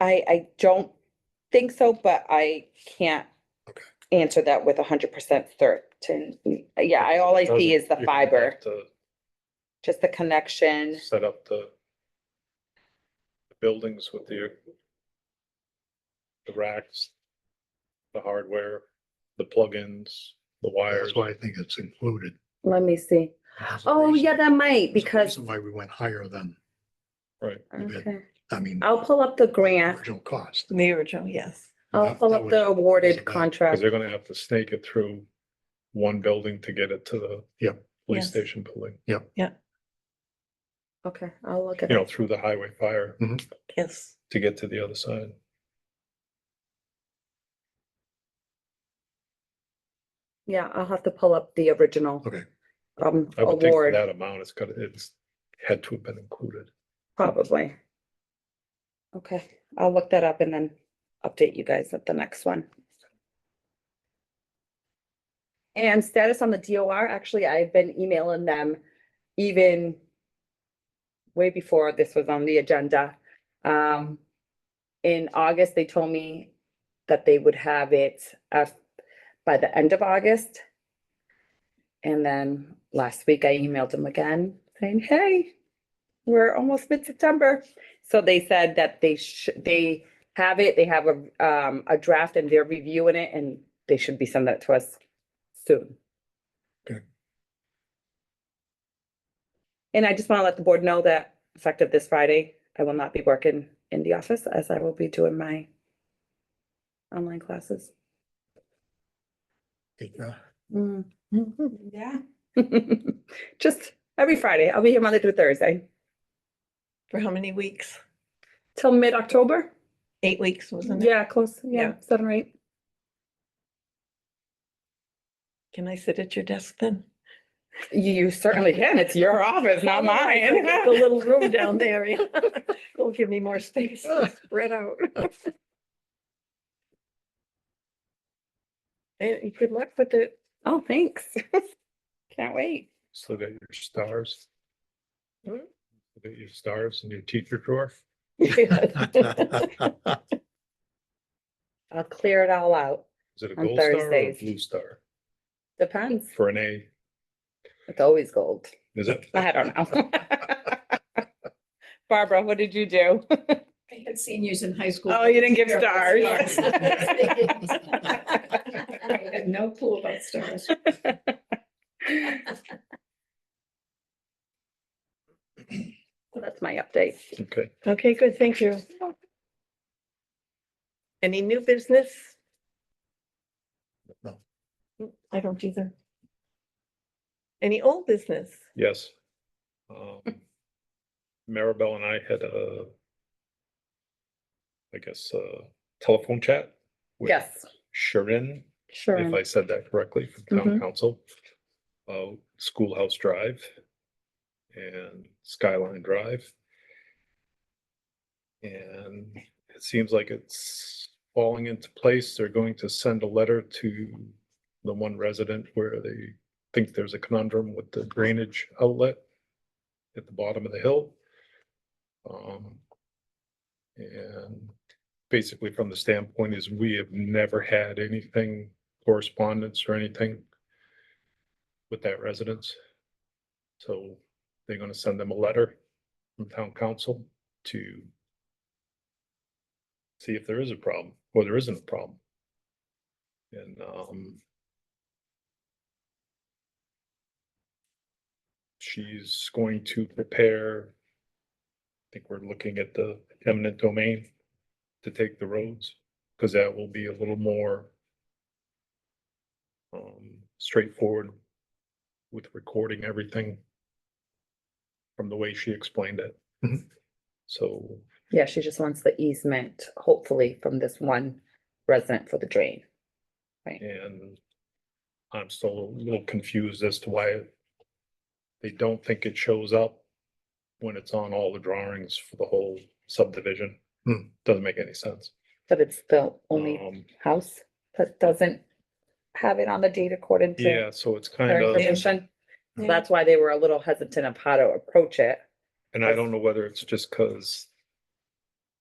I, I don't think so, but I can't Okay. answer that with hundred percent certainty. Yeah, I, all I Those see are- is the you're gonna have fiber, to just the connection. Set up the the buildings with the the racks, the hardware, the plugins, the wires. That's why I think it's included. Let me see. There's a Oh, reason- yeah, that might, there's a because, reason Why we went higher than, Right. bit. okay, I mean. I'll pull up the grant. Original cost. The original, yes. I'll That- pull that up was- the that- awarded 'cause Because contract. they're gonna have to snake it through one building to get it to the Yep. police Yes. station building, Okay, I'll look at you know, it. through the highway fire Yes. to get to the other side. Yeah, I'll have to pull up the original. Okay. Um, I would think for award, that amount, it's gotta, it's had to have been included. probably. Okay, I'll look that up and then update you guys at the next one. And status on the DOR, actually, I've been emailing them even way before this was on the agenda. Um, in August, they told me that they would have it uh by the end of August. And then last week I emailed them again saying, hey, we're almost mid-September. So they said that they should, they have it, they have a, um, a draft and they're reviewing it and they should be sending that to us soon. Okay. And I just want to let the board know that effective this Friday, I will not be working in the office as I will be doing my online classes. Yeah. Yeah. Mm. Just every Friday. I'll be here Monday through Thursday For how many weeks? till mid-October. Eight weeks, wasn't it? Yeah, close. Yeah, Yeah. seven or eight. Can I sit at your desk then? You certainly can. It's your office, not Otherwise, mine. I'll get The little room down there. yeah. It'll give me more space to spread out. And Eh, good luck with it. Oh, thanks. Can't wait. So that your stars. Mm-hmm. Hmm? So That your stars and your teacher drawer. uh, I'll clear it all out. Is it a On gold star or a Thursdays. blue star? Depends. For an A, It's always gold. is it? I don't know. Barbara, what did you do? I had seniors in high school. Oh, you didn't give Yeah, stars. I had no clue about stars. That's my update. Okay, Okay, good, thank you. Any new business? No. Mm, I don't either. Any old business? yes. Um, Maribel and I had a, I guess, uh telephone chat. with Yes, Sharon, if sure. I said that correctly, from town council. Uh, Schoolhouse Drive and Skyline Drive. And it seems like it's falling into place. They're going to send a letter to the one resident where they think there's a conundrum with the drainage outlet at the bottom of the hill. Um, and basically from the standpoint is we have never had anything correspondence or anything with that residence. So they're gonna send them a letter from town council to see if there is a problem or there isn't a problem. And, um, she's going to prepare, I think we're looking at the eminent domain to take the roads, because that will be a little more um, straightforward with recording everything from the way she explained it. Mhm. So, Yeah, she just wants the easement, hopefully from this one resident for the drain. and I'm still a little confused as to why they don't think it shows up when it's on all the drawings for the whole subdivision. Hmm. Doesn't make any sense. But it's the only Um, house that doesn't have it on the date according to Yeah, so it's kind their of. information. So Yeah. That's why they were a little hesitant of how to approach it. And I don't know whether it's just because